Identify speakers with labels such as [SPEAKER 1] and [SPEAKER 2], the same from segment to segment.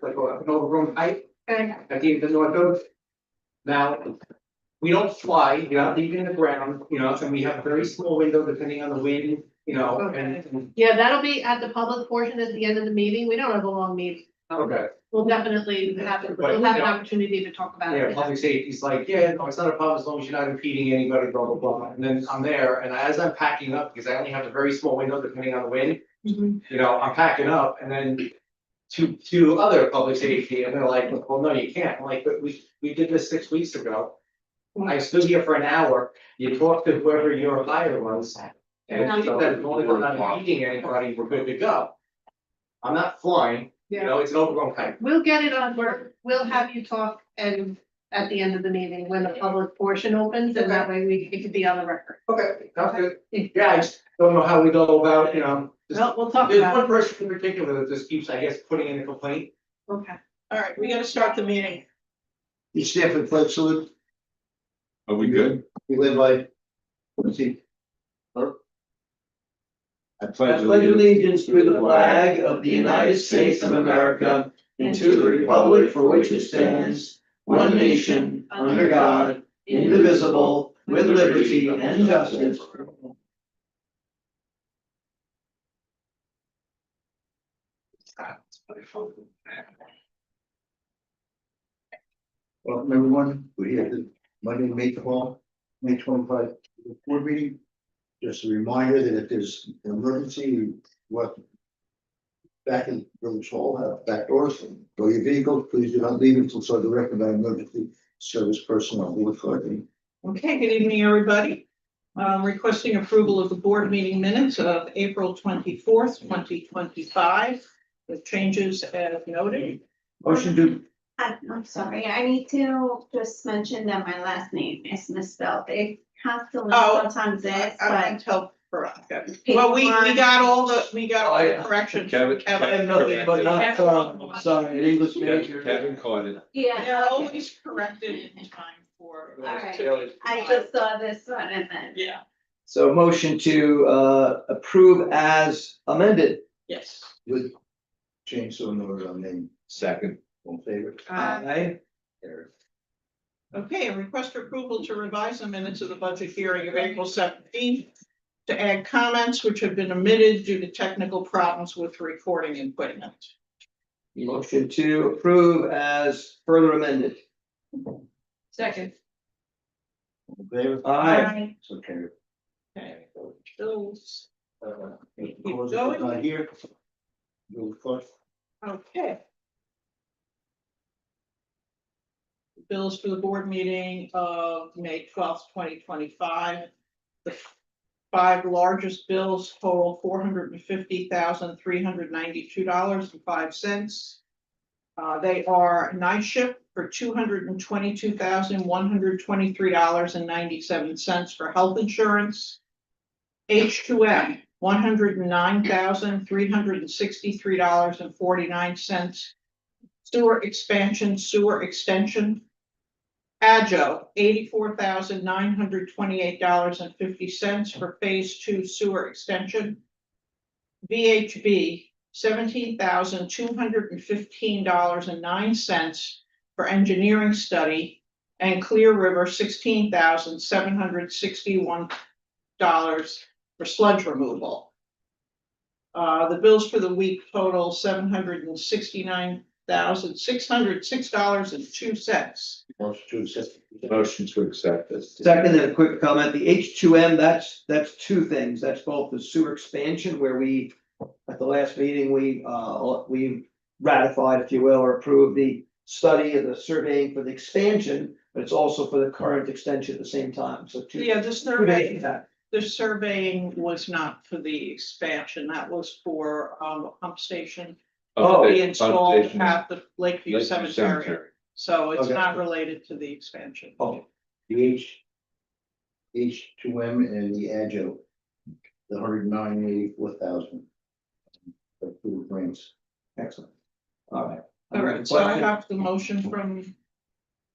[SPEAKER 1] for an overgrown pipe
[SPEAKER 2] Good.
[SPEAKER 1] at the end of the north coast. Now, we don't fly, you're not leaving in the ground, you know, and we have a very small window depending on the wind, you know, and- and,
[SPEAKER 2] Yeah, that'll be at the public portion at the end of the meeting. We don't have a long meeting.
[SPEAKER 1] okay.
[SPEAKER 2] We'll definitely have,
[SPEAKER 1] Right,
[SPEAKER 2] we'll have an
[SPEAKER 1] yeah.
[SPEAKER 2] opportunity to talk about
[SPEAKER 1] Yeah,
[SPEAKER 2] it.
[SPEAKER 1] public safety's like, yeah, no, it's not a problem as long as you're not impeding anybody, blah, blah, blah. And then I'm there and as I'm packing up, because I only have a very small window depending on the wind,
[SPEAKER 2] Mhm.
[SPEAKER 1] you know, I'm packing up and then to, to other public safety and they're like, well, no, you can't. I'm like, but we, we did this six weeks ago. I stood here for an hour. You talked to whoever your hire was. And if you said, as long as I'm not impeding anybody, we're good to go. I'm not flying, you
[SPEAKER 2] Yeah,
[SPEAKER 1] know, it's an overgrown pipe.
[SPEAKER 2] we'll get it on, we're, we'll have you talk and at the end of the meeting when the public portion opens and that way we, it could be on the record.
[SPEAKER 1] Okay, sounds good. Yeah, I just don't know how we go about, you know, just-
[SPEAKER 2] Well, we'll talk
[SPEAKER 1] there's
[SPEAKER 2] about it.
[SPEAKER 1] one person in particular that just keeps, I guess, putting in a complaint.
[SPEAKER 2] Okay.
[SPEAKER 3] All right, we gotta start the meeting.
[SPEAKER 4] You stand for the pledge salute,
[SPEAKER 5] Are we good?
[SPEAKER 4] you live by. let's see,
[SPEAKER 5] I
[SPEAKER 6] I pledge allegiance to the flag of the United States of America and to the republic for which it stands, one nation, under God, indivisible, with liberty and justice. for all.
[SPEAKER 4] welcome everyone, we have the Monday, May twelve, May twenty-five, board meeting. Just a reminder that if there's an emergency, what. Back in village hall, have back doors, and go your vehicles, please do not leave until so directed by emergency service personnel, who authority.
[SPEAKER 3] Okay, good evening, everybody. Um, requesting approval of the board meeting minutes of April twenty-fourth, twenty twenty-five, with changes as noted.
[SPEAKER 4] Motion to,
[SPEAKER 7] I- I'm sorry, I need to just mention that my last name is misspelled. It constantly
[SPEAKER 3] Oh,
[SPEAKER 7] sometimes is,
[SPEAKER 3] I
[SPEAKER 7] but
[SPEAKER 3] can tell Veronica. Well, we, we got all the, we got all the corrections.
[SPEAKER 5] Kevin- uh,
[SPEAKER 3] Kevin.
[SPEAKER 5] nothing but
[SPEAKER 3] not, um,
[SPEAKER 4] sorry, an English
[SPEAKER 5] Kevin caught it.
[SPEAKER 3] They're
[SPEAKER 7] yeah, okay.
[SPEAKER 3] always corrected in time for.
[SPEAKER 7] All right. I just saw this one and then.
[SPEAKER 3] Yeah,
[SPEAKER 6] So motion to uh approve as amended.
[SPEAKER 3] yes.
[SPEAKER 4] with change to another name,
[SPEAKER 5] Second.
[SPEAKER 4] one favor.
[SPEAKER 6] Aye.
[SPEAKER 4] There.
[SPEAKER 3] Okay, and request approval to revise the minutes of the budget hearing of April seventeenth. To add comments which have been omitted due to technical problems with recording equipment.
[SPEAKER 6] Motion to approve as further amended.
[SPEAKER 2] Second.
[SPEAKER 4] One favor.
[SPEAKER 6] Aye.
[SPEAKER 4] So carry.
[SPEAKER 3] Okay, those,
[SPEAKER 4] Uh,
[SPEAKER 3] Keep
[SPEAKER 4] because
[SPEAKER 3] going.
[SPEAKER 4] it's not here. You'll cut.
[SPEAKER 3] okay. Bills for the board meeting of May twelfth, twenty twenty-five. The five largest bills total four hundred and fifty thousand, three hundred ninety-two dollars and five cents. Uh, they are night shift for two hundred and twenty-two thousand, one hundred twenty-three dollars and ninety-seven cents for health insurance. H two M, one hundred and nine thousand, three hundred and sixty-three dollars and forty-nine cents. Sewer expansion, sewer extension. Agio, eighty-four thousand, nine hundred twenty-eight dollars and fifty cents for phase two sewer extension. VHB, seventeen thousand, two hundred and fifteen dollars and nine cents for engineering study. And Clear River, sixteen thousand, seven hundred sixty-one dollars for sludge removal. Uh, the bills for the week total seven hundred and sixty-nine thousand, six hundred, six dollars and two cents.
[SPEAKER 4] Motion to accept.
[SPEAKER 5] Motion to accept this.
[SPEAKER 6] Second, and a quick comment, the H two M, that's, that's two things, that's both the sewer expansion where we, at the last meeting, we, uh, we ratified, if you will, or approved the study and the surveying for the expansion, but it's also for the current extension at the same time, so two.
[SPEAKER 3] Yeah, the
[SPEAKER 6] two
[SPEAKER 3] survey,
[SPEAKER 6] days back.
[SPEAKER 3] the surveying was not for the expansion, that was for, um, a pump station.
[SPEAKER 6] Oh,
[SPEAKER 3] We
[SPEAKER 5] Update-
[SPEAKER 3] installed
[SPEAKER 5] updation.
[SPEAKER 3] at the Lakeview
[SPEAKER 5] Lakeview
[SPEAKER 3] Cemetery, so it's
[SPEAKER 6] Okay.
[SPEAKER 3] not related to the expansion.
[SPEAKER 6] Oh,
[SPEAKER 4] The H. H two M and the Agio. The hundred nine eighty-four thousand. The two grants.
[SPEAKER 6] excellent. All right.
[SPEAKER 3] All right, so I have the motion from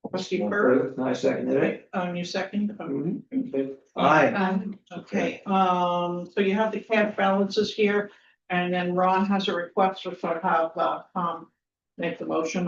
[SPEAKER 3] trustee Burke,
[SPEAKER 6] I seconded it.
[SPEAKER 3] um, you second, um,
[SPEAKER 6] Mhm. Aye,
[SPEAKER 3] Okay, um, so you have the cash balances here, and then Ron has a request for sort of how, uh, um, make the motion